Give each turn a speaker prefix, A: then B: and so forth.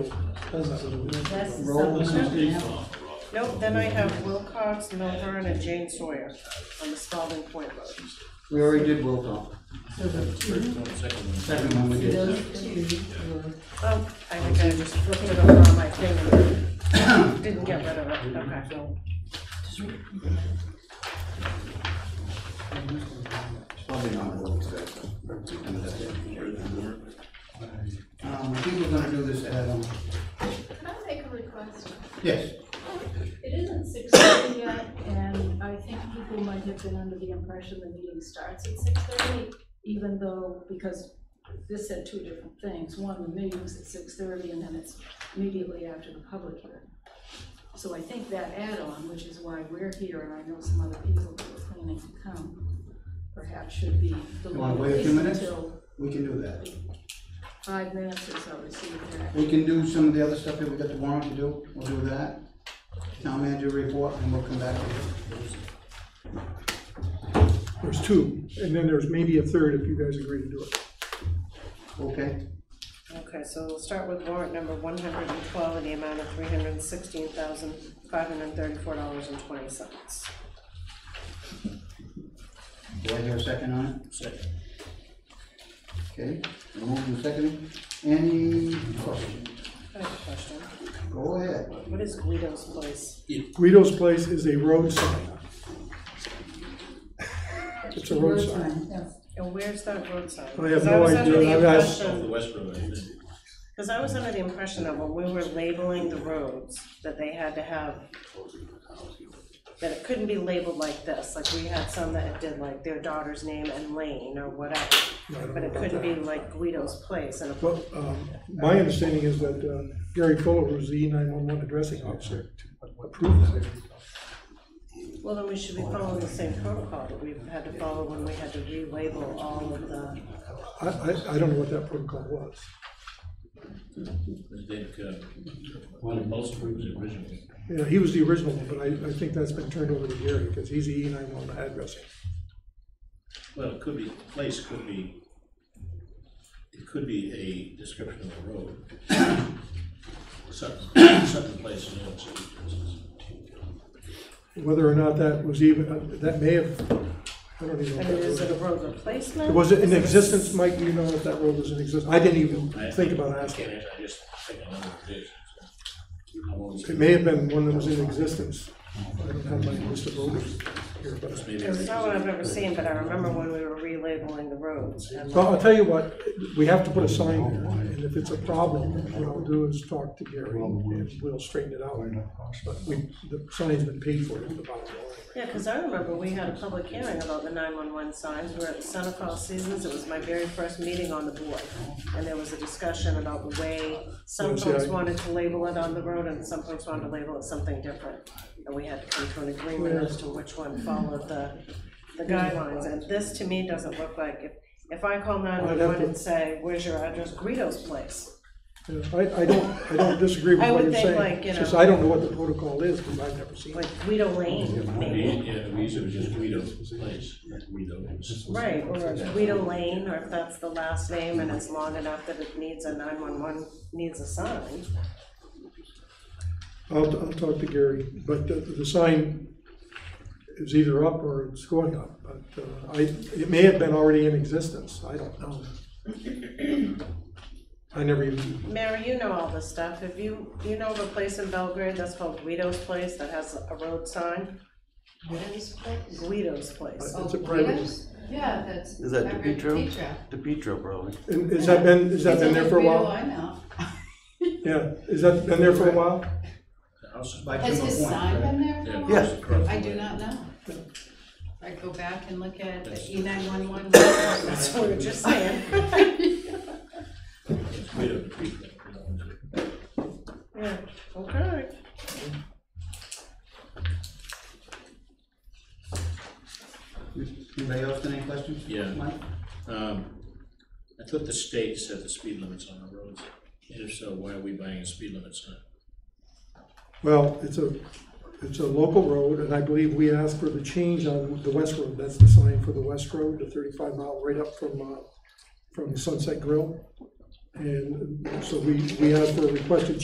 A: That's the
B: Roll this is
A: supplemental.
B: default.
A: Nope, then I have Wilcox, Milburn, and Jane Sawyer on the Spalding Point Road.
B: We already did roll call.
C: So the two,
B: Second one we did.
C: those two were,
A: Oh, I think I just flipped it over on my thing and didn't get rid of it, okay.
B: Probably not roll today. Um, I think we're gonna do this add on.
D: Can I make a request?
B: Yes.
D: It isn't six thirty yet, and I think people might have been under the impression the meeting starts at six thirty, even though, because this said two different things. One, the meeting was at six thirty, and then it's immediately after the public hearing. So I think that add-on, which is why we're here, and I know some other people that were planning to come, perhaps should be
B: You wanna
D: delayed
B: wait a
D: at
B: few
D: least
B: minutes?
D: until
B: We can do that.
D: five minutes or so to see if they're
B: We can do some of the other stuff that we got the warrant to do. We'll do that. Town manager report, and we'll come back to it.
E: There's two, and then there's maybe a third if you guys agree to do it.
B: Okay?
A: Okay, so we'll start with warrant number one hundred and twelve in the amount of three hundred and sixteen thousand, five hundred and thirty-four dollars and twenty cents.
B: Do I hear a second on it? Second. Okay, we're moving second. Any questions?
A: I have a question.
B: Go ahead.
A: What is Guido's place?
E: Guido's Place is a road sign. It's a
C: two
E: road
C: road
E: sign.
C: signs, yes.
A: And where's that road sign?
E: I have
A: 'Cause
E: no
A: was under
E: idea.
A: the
E: I've asked-
A: impression-
F: West Road, isn't it?
A: Because I was under the impression that when we were labeling the roads, that they had to have, that it couldn't be labeled like this, like we had some that did like their daughter's name and lane or whatever. But it couldn't be like Guido's Place and
E: Well, um, my understanding is that uh, Gary Fuller, who's the E nine-one-one addressing officer, approved that.
A: well, then we should be following the same protocol that we've had to follow when we had to relabel all of the,
E: I, I, I don't know what that protocol was.
F: I think, uh, one of most groups originally.
E: You know, he was the original one, but I, I think that's been turned over to Gary, because he's the E nine-one-one addressing.
F: Well, it could be, place could be, it could be a description of a road. Certain, certain place in New York City, for instance.
E: Whether or not that was even, uh, that may have, I don't even know.
A: I
E: if that
A: mean, is
E: was-
A: it a road replacement?
E: Was it in
A: Is a-
E: existence, Mike, do you know if that road was in existence? I didn't even think about
F: I
E: asking.
F: can't answer, I just think I know what it is. so. I won't-
E: It may have been one that was in existence. I don't have my list of voters here, but,
F: Maybe
A: It's not one I've ever seen, but I remember when we were relabeling the roads and
E: well, I'll tell you what, we have to put a sign there, and if it's a problem, what I'll do is talk to Gary, and we'll straighten it out. But we, the sign's been paid for, is the bottom line.
A: Yeah, because I remember we had a public hearing about the nine-one-one signs, we were at the Santa Claus Seasons, it was my very first meeting on the board. And there was a discussion about the way some
E: Yes, yeah.
A: folks wanted to label it on the road and some folks wanted to label it something different. And we had to come to an agreement as to which one followed the, the guidelines, and this to me doesn't look like, if, if I call nine-one-one and say, where's your address, Guido's place,
E: Yeah, I, I don't, I don't disagree with
A: I
E: what
A: would
E: you're
A: think, like,
E: saying.
A: you
E: It's just
A: know-
E: I don't know what the protocol is, because I've never seen it.
A: like Guido Lane, maybe.
F: Yeah, we used to just Guido's place, Guido.
A: Right, or Guido Lane, or if that's the last name and it's long enough that it needs a nine-one-one, needs a sign.
E: I'll, I'll talk to Gary, but the, the sign is either up or it's going up, but uh, I, it may have been already in existence, I don't know. I never even,
A: Mary, you know all this stuff, if you, you know of a place in Belgrade that's called Guido's Place that has a road sign?
G: What is that?
A: Guido's Place.
E: It's a
G: Oh,
E: private-
G: Guido's? Yeah, that's.
H: Is that
G: I read
H: Petro?
G: Petro.
H: DePietro, probably.
E: and has that been, has that
G: It's
E: been there
G: only
E: for a
G: Guido
E: while?
G: I know.
E: Yeah, has that been there for a while?
B: By
G: Has
B: Kimball
G: his
B: Point,
G: sign
B: right?
G: been there for a
F: Yeah.
G: while?
H: Yes.
G: I do not know. I go back and look at the E nine one one.
A: That's what we we're just saying.
F: It's Guido, Guido, you know, it's-
A: Yeah, okay.
B: Anybody else got any questions?
F: Yeah.
B: Mike?
F: Um, I thought the state set the speed limits on the roads, and if so, why are we buying a speed limit sign?
E: Well, it's a, it's a local road, and I believe we asked for the change on the West Road, that's the sign for the West Road, the thirty-five mile right up from, uh, from Sunset Grill. And so we, we asked for a requested